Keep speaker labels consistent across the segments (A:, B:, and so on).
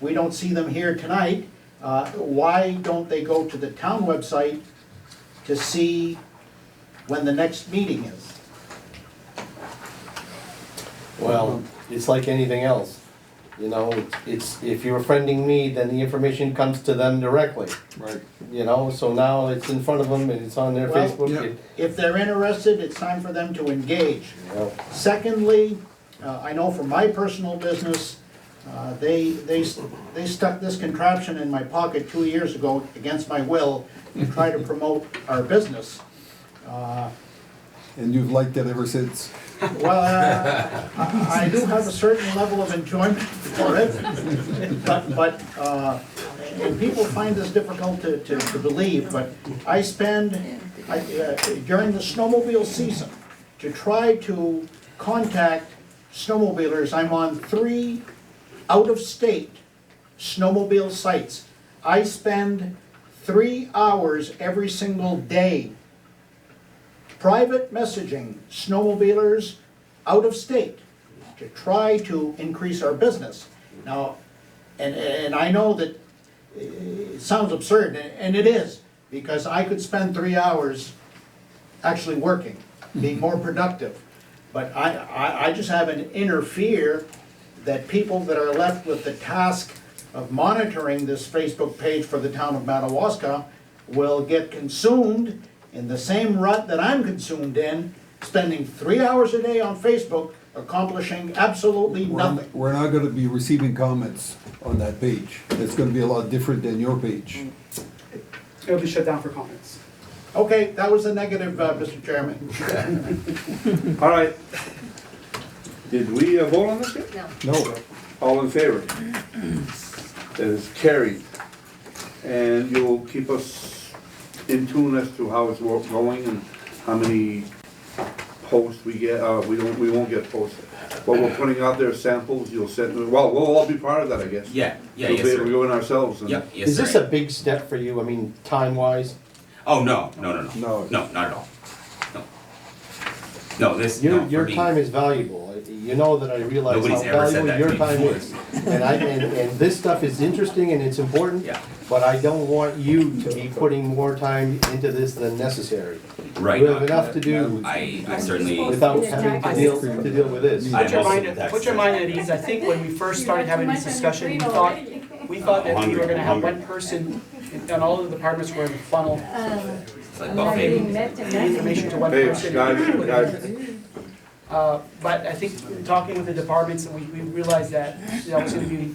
A: we don't see them here tonight, uh, why don't they go to the town website to see when the next meeting is?
B: Well, it's like anything else, you know, it's, if you're friending me, then the information comes to them directly,
C: Right.
B: you know, so now it's in front of them and it's on their
A: Well,
B: Facebook.
C: yeah.
B: it-
A: If they're interested, it's time for them to engage.
B: you know.
A: Secondly, uh, I know for my personal business, uh, they, they, they stuck this contraption in my pocket two years ago against my will to try to promote our business. Uh,
C: And you've liked it ever since.
A: Well, uh, I I do have a certain level of enjoyment for it, but, but, uh, and people find this difficult to, to to believe, but I spend, I, uh, during the snowmobile season, to try to contact snowmobilers, I'm on three out-of-state snowmobile sites. I spend three hours every single day private messaging snowmobilers out of state to try to increase our business. Now, and, and I know that eh, it sounds absurd, and and it is, because I could spend three hours actually working, being more productive. But I, I, I just have an inner fear that people that are left with the task of monitoring this Facebook page for the town of Madawaska will get consumed in the same rut that I'm consumed in, spending three hours a day on Facebook accomplishing absolutely
C: We're
A: nothing.
C: we're not gonna be receiving comments on that page. It's gonna be a lot different than your page.
D: It'll be shut down for comments.
A: Okay, that was a negative, uh, Mr. Chairman.
E: All right. Did we uh, vote on this yet?
F: No.
C: No,
E: All in favor? That is carried. And you'll keep us in tune as to how it's wo- going and how many posts we get, uh, we don't, we won't get posted. But we're putting out there samples, you'll send, well, we'll all be part of that, I guess.
G: Yeah, yeah,
E: We'll
G: yes,
E: be able to
G: sir.
E: go in ourselves and.
G: Yep, yes,
B: Is
G: sir.
B: this a big step for you, I mean, time-wise?
G: Oh, no, no, no, no.
C: No.
G: No, not at all. No. No, this, no,
B: Your,
G: for me.
B: your time is valuable, you know that I realize how
G: Nobody's ever said
B: valuable
G: that
B: your
G: to me
B: time is. And I, and, and this stuff is interesting and it's important.
G: Yeah.
B: But I don't want you to be putting more time into this than necessary.
G: Right. uh,
B: You have enough to do
G: I, I certainly,
B: without having to deal, to deal with this.
G: I
D: Put your
G: also
D: mind,
G: did that.
D: put your mind at ease, I think when we first started having this discussion, we thought, we thought that we were gonna have one person, and all of the departments were in the funnel,
G: it's like buffet.
D: the information to one
E: Hey,
D: person.
E: guys, guys,
D: Uh, but I think, talking with the departments, and we, we realized that, that was gonna be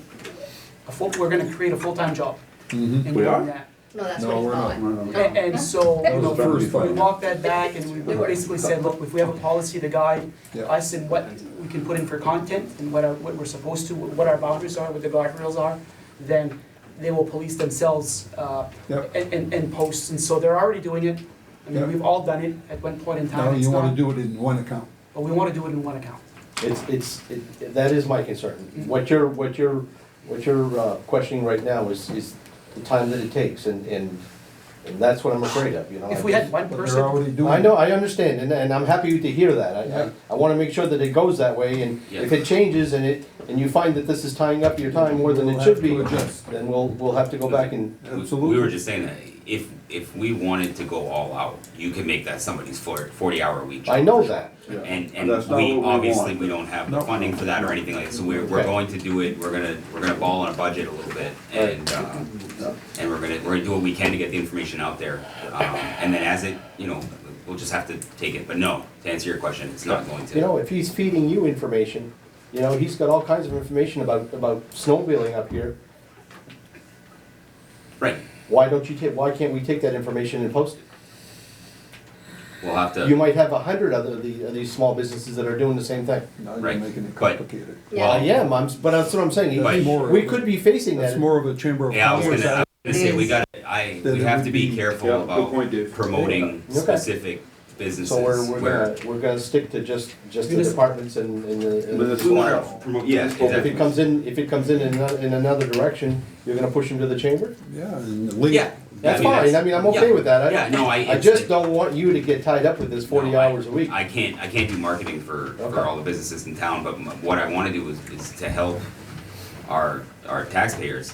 D: a full, we're gonna create a full-time job in
E: Mm-hmm. We are?
D: doing that.
F: No, that's
C: No,
F: what
C: we're
F: it's
C: not.
F: called.
D: A- And, so,
C: that
D: you
C: was
D: know,
C: the first
D: we
C: fight.
D: walked that back and we basically said, look, if we have a policy to guide
C: Yeah.
D: us and what we can put in for content and what our, what we're supposed to, what our boundaries are, what the guardrails are, then they will police themselves, uh,
C: Yep.
D: and, and, and posts, and so they're already doing it.
C: Yep.
D: I mean, we've all done it at one point in
C: now
D: time, it's
C: you wanna
D: not,
C: do it in one account.
D: but we wanna do it in one account.
B: It's, it's, it- that is my concern. What you're, what you're, what you're uh, questioning right now is, is the time that it takes, and, and, and that's what I'm afraid of, you know?
D: If we had
C: Oh,
D: one
C: But they're
D: person,
C: already doing.
B: I know, I understand, and, and I'm happy to hear that, I,
C: Yeah.
B: I, I wanna make sure that it goes that way, and if
G: Yeah.
B: it changes and it, and you find that this is tying up your time more than it should be,
C: We'll have to adjust.
B: then we'll, we'll have to go back and,
G: We were
C: Absolutely.
G: just saying that if, if we wanted to go all out, you can make that somebody's forty, forty hour week job.
B: I know that.
G: And, and
E: That's not what
G: we,
E: we
G: obviously,
E: want.
G: we don't have the
C: No.
G: funding for that or anything like that, so we're, we're
B: Okay.
G: going to do it, we're gonna, we're gonna ball on a budget a little bit, and, uh, and we're gonna, we're gonna do what we can to get the information out there, um, and then as it, you know, we'll just have to take it, but no, to answer your question, it's not going to.
B: You know, if he's feeding you information, you know, he's got all kinds of information about, about snowmobiling up here,
G: Right,
B: why don't you take, why can't we take that information and post it?
G: we'll have
B: You
G: to,
B: might have a hundred other of the, of these small businesses that are doing the same thing.
C: Now you're
G: Right,
C: making it
G: but-
C: complicated.
F: Yeah.
B: I am, I'm, but that's what I'm saying,
G: But-
B: we could be facing
C: That's
B: that.
C: more of a chamber of
G: yeah, I was
C: commerce.
G: gonna, I was gonna say, we gotta, I,
C: Then
G: we
C: it
G: have
C: would
G: to be
C: be-
E: yeah,
G: careful
E: good
G: about
E: point, Dave.
G: promoting
B: Okay.
G: specific businesses
B: So we're, we're
G: where.
B: gonna, we're gonna stick to just, just the
D: Municipal.
B: departments and, and the. and
E: But
B: the-
E: it's
G: We wanna promote, yeah,
E: Municipal.
B: If it
G: exactly.
B: comes in, if it comes in in another, in another direction, you're gonna push them to the chamber?
C: Yeah, and the link.
G: Yeah.
B: That's
G: I mean,
B: fine, I mean, I'm okay
G: yeah.
B: with that,
G: Yeah,
B: I,
G: no, I.
B: I
G: it's-
B: just don't want you to get tied up with this forty
G: No, I-
B: hours a week.
G: I can't, I can't do marketing for,
B: Okay.
G: for all the businesses in town, but m- what I wanna do is, is to help our, our taxpayers